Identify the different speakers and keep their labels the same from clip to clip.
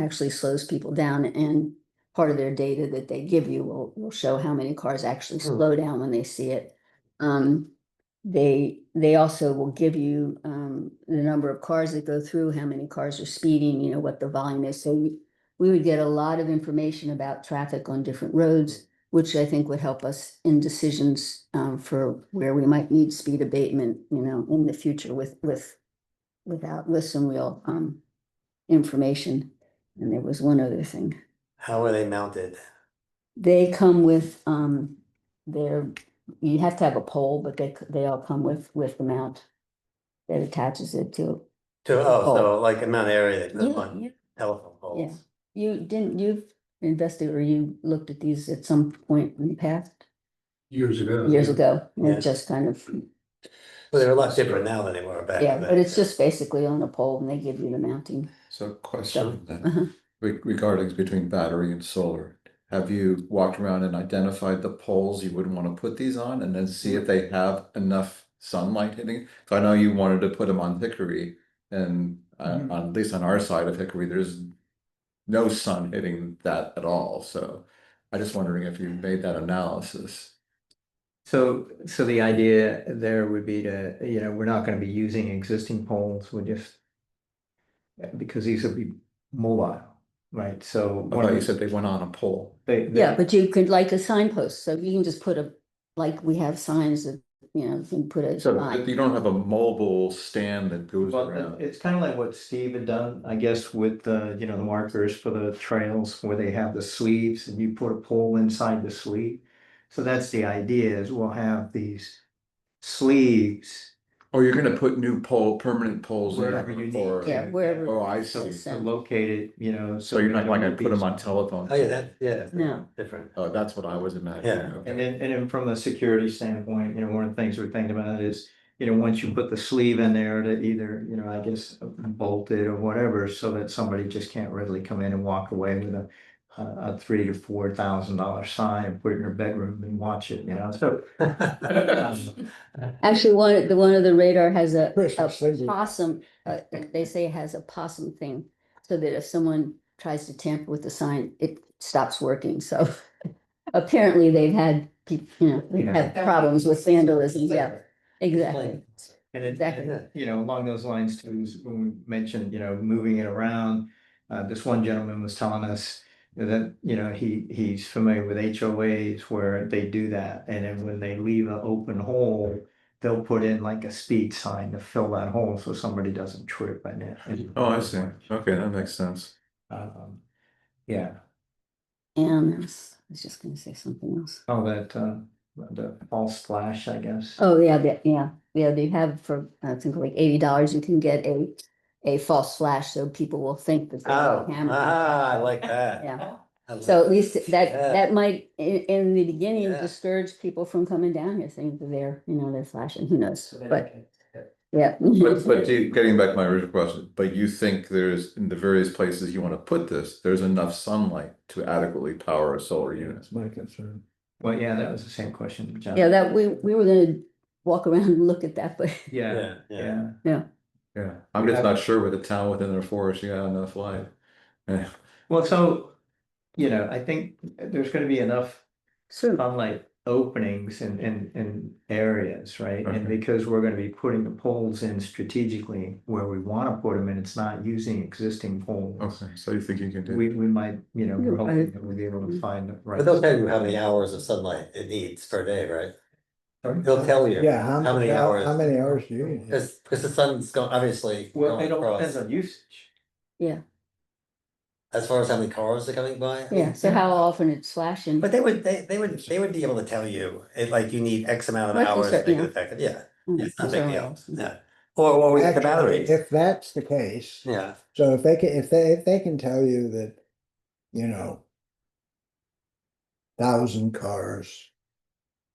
Speaker 1: actually slows people down and part of their data that they give you will, will show how many cars actually
Speaker 2: Hmm.
Speaker 1: slow down when they see it. Um, they, they also will give you, um, the number of cars that go through, how many cars are speeding, you know, what the volume is. So we, we would get a lot of information about traffic on different roads, which I think would help us in decisions, um, for where we might need speed abatement, you know, in the future with, with, without, with some real, um, information. And there was one other thing.
Speaker 2: How are they mounted?
Speaker 1: They come with, um, their, you have to have a pole, but they, c- they all come with, with the mount that attaches it to.
Speaker 2: To, oh, so
Speaker 1: Pole.
Speaker 2: like amount of area they put
Speaker 1: Yeah,
Speaker 2: them on
Speaker 1: yeah.
Speaker 2: telephone poles.
Speaker 1: You didn't, you've invested or you looked at these at some point in the past,
Speaker 3: Years ago.
Speaker 1: years ago, and
Speaker 2: Yeah.
Speaker 1: it just kind of,
Speaker 2: But they're a lot different now than they were back
Speaker 1: yeah,
Speaker 2: then.
Speaker 1: but it's just basically on a pole and they give you the mounting.
Speaker 4: So
Speaker 1: So,
Speaker 4: question then,
Speaker 1: uh-huh.
Speaker 4: re- regarding between battery and solar. Have you walked around and identified the poles you would want to put these on and then see
Speaker 1: Mm-hmm.
Speaker 4: if they have enough sunlight hitting? So I know you wanted to put them on Hickory and uh,
Speaker 1: Mhm.
Speaker 4: on, at least on our side of Hickory, there's no sun hitting that at all. So I just wondering if you made that analysis.
Speaker 5: So, so the idea there would be to, you know, we're not gonna be using existing poles, we're just. Because these will be mobile, right, so.
Speaker 4: I thought you said they went on a pole.
Speaker 5: They, they-
Speaker 1: Yeah, but you could like a signpost, so you can just put a, like we have signs that, you know, you can put a
Speaker 4: So but
Speaker 1: sign.
Speaker 4: you don't have a mobile stand that goes
Speaker 5: well, uh,
Speaker 4: around.
Speaker 5: It's kind of like what Steve had done, I guess, with the, you know, the markers for the trails where they have the sleeves and you put a pole inside the sleeve. So that's the idea is we'll have these sleeves
Speaker 4: Or Oh, you're gonna put new pole, permanent poles in
Speaker 5: wherever you need.
Speaker 4: or.
Speaker 5: to-
Speaker 1: Yeah, wherever.
Speaker 4: Oh, I
Speaker 5: So
Speaker 4: see.
Speaker 1: Yes.
Speaker 5: to locate it, you know, so.
Speaker 4: So you're
Speaker 5: we
Speaker 4: not
Speaker 5: don't
Speaker 4: like I
Speaker 5: have
Speaker 4: put them
Speaker 5: these-
Speaker 4: on telephone?
Speaker 2: Oh, yeah, that, yeah.
Speaker 1: No.
Speaker 2: Different.
Speaker 4: Oh, that's what I was imagining.
Speaker 2: Yeah.
Speaker 4: okay.
Speaker 5: And then, and then from a security standpoint, you know, one of the things we're thinking about is, you know, once you put the sleeve in there to either, you know, I guess bolt it or whatever, so that somebody just can't really come in and walk away with a a, a three to four thousand dollar sign and put it in their bedroom and watch it, you know, so. um,
Speaker 1: Actually, one, the one of the radar has a,
Speaker 2: Oh,
Speaker 3: Christmas, thank
Speaker 1: a
Speaker 3: you.
Speaker 1: possum, uh, they say it has a possum thing. So that if someone tries to tamper with the sign, it stops working, so. Apparently, they've had, peop- you know, they've had problems with vandalism, yeah, exactly.
Speaker 5: And it,
Speaker 1: Exactly.
Speaker 5: and, you know, along those lines too, is when we mentioned, you know, moving it around, uh, this one gentleman was telling us that, you know, he, he's familiar with HOAs where they do that, and then when they leave an open hole, they'll put in like a speed sign to fill that hole so somebody doesn't trip on it. and-
Speaker 4: Oh, I see. Okay, that makes sense.
Speaker 5: Um, Yeah,
Speaker 1: And I was, I was just gonna say something else.
Speaker 5: all that, uh, the false flash, I guess.
Speaker 1: Oh, yeah, the- yeah, yeah, they have for, I think like eighty dollars, you can get a, a false flash, so people will think that. they have
Speaker 2: Oh,
Speaker 1: a camera.
Speaker 2: ah, I like that.
Speaker 1: Yeah.
Speaker 2: I like
Speaker 1: So at least that,
Speaker 2: Yeah.
Speaker 1: that might, in, in the beginning,
Speaker 2: Yeah.
Speaker 1: discourage people from coming down here saying that they're, you know, they're flashing, who knows,
Speaker 5: So that-
Speaker 1: but, yeah.
Speaker 4: But, but do you- getting back to my original question, but you think there's, in the various places you want to put this, there's enough sunlight to adequately power a solar unit?
Speaker 3: That's my concern.
Speaker 5: Well, yeah, that was the same question, John.
Speaker 1: Yeah, that, we, we were gonna walk around and look at that, but
Speaker 5: Yeah,
Speaker 2: Yeah, yeah.
Speaker 5: yeah.
Speaker 4: Yeah, I'm just not sure with a town within their forest, you got enough light. Yeah.
Speaker 5: Well, so, you know, I think there's gonna be enough
Speaker 1: soon,
Speaker 5: sunlight openings and, and, and areas, right? And
Speaker 4: Okay.
Speaker 5: because we're gonna be putting the poles in strategically where we wanna put them and it's not using existing poles.
Speaker 4: Okay, so you think you can do,
Speaker 5: We, we might, you know, we're
Speaker 1: You're
Speaker 5: hoping
Speaker 1: right.
Speaker 5: that we'll be able to find the right.
Speaker 2: But they'll tell you how many hours of sunlight it needs per day, right?
Speaker 5: Sorry?
Speaker 2: They'll tell you.
Speaker 3: Yeah, how,
Speaker 2: How many
Speaker 3: how,
Speaker 2: hours?
Speaker 3: how many hours do you need?
Speaker 2: Cause, 'cause the sun's going, obviously.
Speaker 5: Well,
Speaker 2: going
Speaker 5: it all
Speaker 2: across.
Speaker 5: depends on usage.
Speaker 2: As far as how many cars are coming by. I
Speaker 1: yeah,
Speaker 2: mean,
Speaker 1: so how often it's flashing,
Speaker 2: But they would, they, they would, they would be able to tell you, it like you need X amount of
Speaker 1: Like you
Speaker 2: hours to
Speaker 1: said,
Speaker 2: make
Speaker 1: yeah.
Speaker 2: it effective, yeah,
Speaker 1: Mm,
Speaker 2: it's not a big
Speaker 1: certainly
Speaker 2: deal,
Speaker 1: awesome.
Speaker 2: yeah. Or, or with the
Speaker 3: Actually,
Speaker 2: batteries,
Speaker 3: If that's the case,
Speaker 2: yeah,
Speaker 3: so if they can, if they, if they can tell you that, you know. Thousand cars.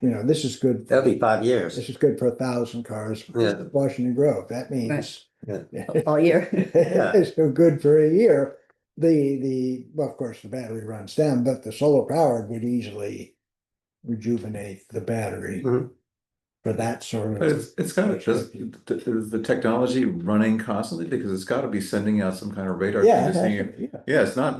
Speaker 3: You know, this is good.
Speaker 2: that'd be five
Speaker 3: This
Speaker 2: years.
Speaker 3: is good for a thousand cars. for
Speaker 2: Yeah.
Speaker 3: Washington Grove, that means.
Speaker 2: Yeah.
Speaker 1: all year,
Speaker 3: It's so good for a year. The, the, well, of course, the battery runs down, but the solar powered would easily rejuvenate the battery.
Speaker 2: Mhm.
Speaker 3: for that sort
Speaker 4: But
Speaker 3: of.
Speaker 4: it's, it's gotta just, th- is the technology running constantly? Because it's gotta be sending out some kind of radar. thing
Speaker 3: Yeah,
Speaker 4: to
Speaker 3: it
Speaker 4: see-
Speaker 3: has to be, yeah.
Speaker 4: Yeah, it's not,